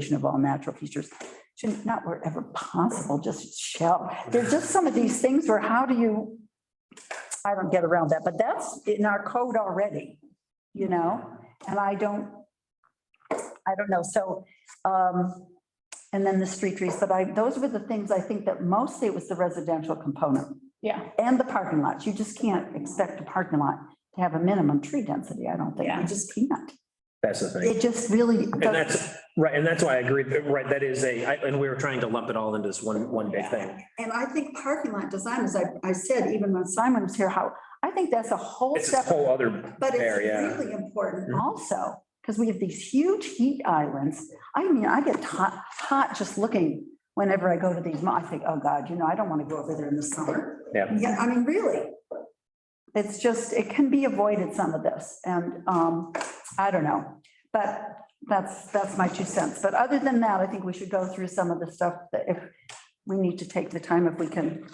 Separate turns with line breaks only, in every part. preservation of all natural features. Should not wherever possible, just shall. There's just some of these things where how do you, I don't get around that, but that's in our code already, you know? And I don't, I don't know, so, um, and then the street trees, but I, those were the things I think that mostly it was the residential component
Yeah,
and the parking lots. You just can't expect a parking lot to have a minimum tree density, I don't think.
Yeah.
You just can't.
That's the thing.
It just really
And
doesn't.
that's, right, and that's why I agree, that- right, that is a, I- and we were trying to lump it all into this one, one big thing.
And I think parking lot design, as I, I said, even when Simon was here, how, I think that's a whole
It's a
separate,
whole other
but it's
bear, yeah.
really important
Mhm.
also, because we have these huge heat islands. I mean, I get hot, hot just looking whenever I go to these, mo- I think, oh God, you know, I don't want to go over there in the summer.
Yeah.
Yeah, I mean, really. It's just, it can be avoided some of this and, um, I don't know. But that's, that's my two cents. But other than that, I think we should go through some of the stuff that if we need to take the time if we can.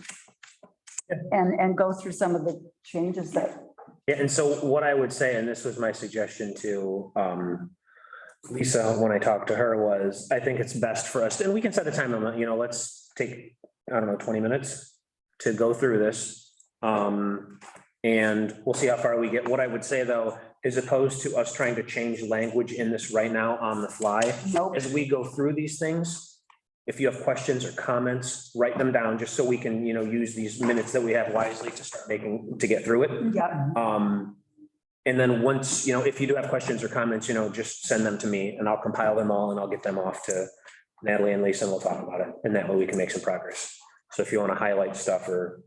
And, and go through some of the changes that,
Yeah, and so what I would say, and this was my suggestion to um Lisa when I talked to her was, I think it's best for us, and we can set a time limit, you know, let's take, I don't know, twenty minutes to go through this. Um, and we'll see how far we get. What I would say, though, is opposed to us trying to change language in this right now on the fly,
nope,
as we go through these things, if you have questions or comments, write them down, just so we can, you know, use these minutes that we have wisely to start making, to get through it.
yeah,
Um, and then once, you know, if you do have questions or comments, you know, just send them to me and I'll compile them all and I'll get them off to Natalie and Lisa and we'll talk about it. And that way we can make some progress. So if you want to highlight stuff or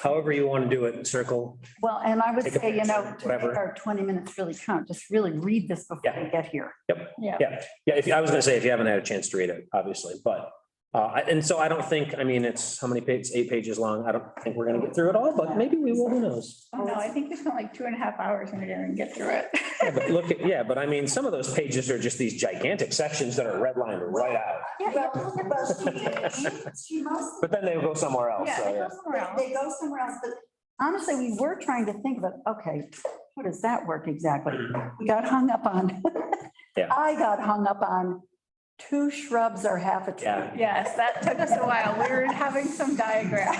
however you want to do it, circle.
well, and I would
Take a
say, you know,
picture,
to make
whatever.
our twenty minutes really count, just really read this before
Yeah.
we get here.
yeah.
Yeah, if, I was gonna say, if you haven't had a chance to read it, obviously, but, uh, I- and so I don't think, I mean, it's how many pages, eight pages long. I don't think we're gonna get through it all, but maybe we will, who knows?
Oh, no, I think we spent like two and a half hours in there and get through it.
Yeah, But look, at yeah, but I mean, some of those pages are just these gigantic sections that are redlined right out,
She must
but then they go somewhere else, so, yeah.
Yeah,
They they go somewhere else, but honestly, we were trying to think about, okay, how does that work exactly? We got hung up on.
Yeah.
I got hung up on two shrubs or half a
Yeah.
tree.
Yes, that took us a while. We were having some diagrams.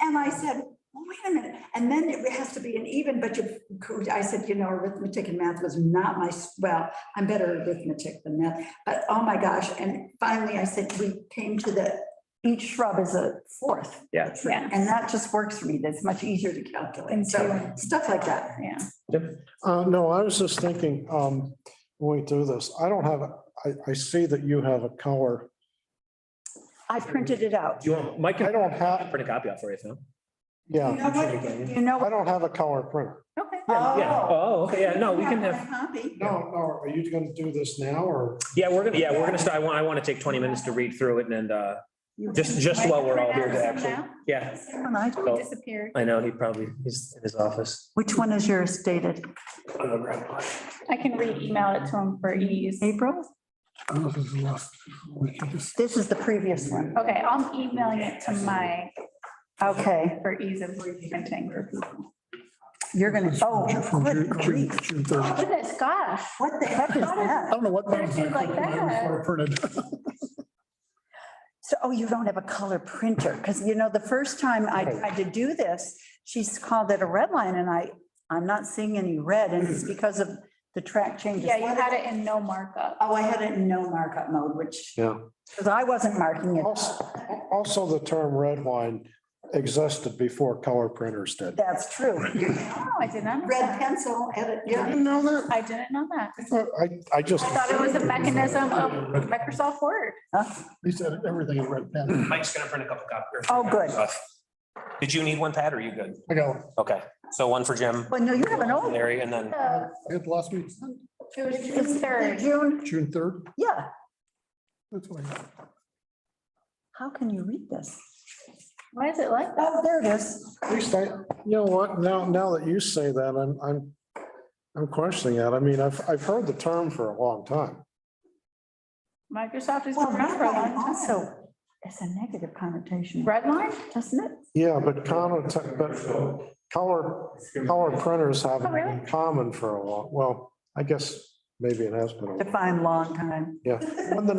And I said, well, wait a minute, and then it has to be an even, but you, could- I said, you know, arithmetic and math was not my, s- well, I'm better at arithmetic than math, but oh my gosh, and finally I said, we came to the, each shrub is a fourth.
Yeah.
tree,
Yeah.
And that just works for me, that's much easier to calculate,
And
so,
two.
stuff like that.
Yeah.
Uh, no, I was just thinking, um, when we do this, I don't have, a- I, I see that you have a color.
I printed it out.
Do you want, Mike can
I don't have,
print a copy out for you, Phil.
yeah,
You know
I
what?
don't have a color printer.
Okay.
Yeah, oh, okay, yeah, no, we can have,
No, no, are you gonna do this now or?
yeah, we're gonna, yeah, we're gonna start, I want, I want to take twenty minutes to read through it and, uh, just, Oh. just while we're all here to actually, yeah.
We disappeared.
I know, he probably, he's in his office.
Which one is yours dated?
I'm gonna grab one.
I can re-email it to him for ease.
April? This is the previous one.
Okay, I'm emailing it to my,
Okay,
for ease of reprinting for people.
you're gonna, oh, good grief.
Look at this, gosh.
What the heck is
Oh.
that?
don't know what.
They're just like that.
Printed.
So, oh, you don't have a color printer, because you know, the first time I tried to do this, she's called it a red line and I, I'm not seeing any red and
Mm.
it's because of the track changes.
Yeah, you had it in no markup.
Oh, I had it in no markup mode, which,
Yeah.
because I wasn't marking it.
Also, also the term red line existed before color printers did.
That's true.
Oh, I did not know
red
that.
pencil, edit,
You
yeah.
didn't know that?
I didn't know that.
I, I just,
I thought it was a mechanism of Microsoft Word.
He said everything in red pen.
Mike's gonna print a couple copies.
Oh, good.
Did you need one, Pat, or are you good?
I got,
Okay, so one for Jim,
Well, no, you have an old.
Larry, and then,
The-
I got the last week,
Uh, It was June third.
June,
June third.
yeah.
That's what I got.
How can you read this?
Why is it like that?
Oh, there it is.
at least I, you know what, now, now that you say that, I'm, I'm, I'm questioning that. I mean, I've, I've heard the term for a long time.
Microsoft has
Well,
been around for a long time.
also, it's a negative connotation,
Redline?
doesn't it?
Yeah, but conno- but color, color printers
Oh,
haven't
really?
been common for a while. Well, I guess maybe it has been a while.
Define long time.
Yeah. When the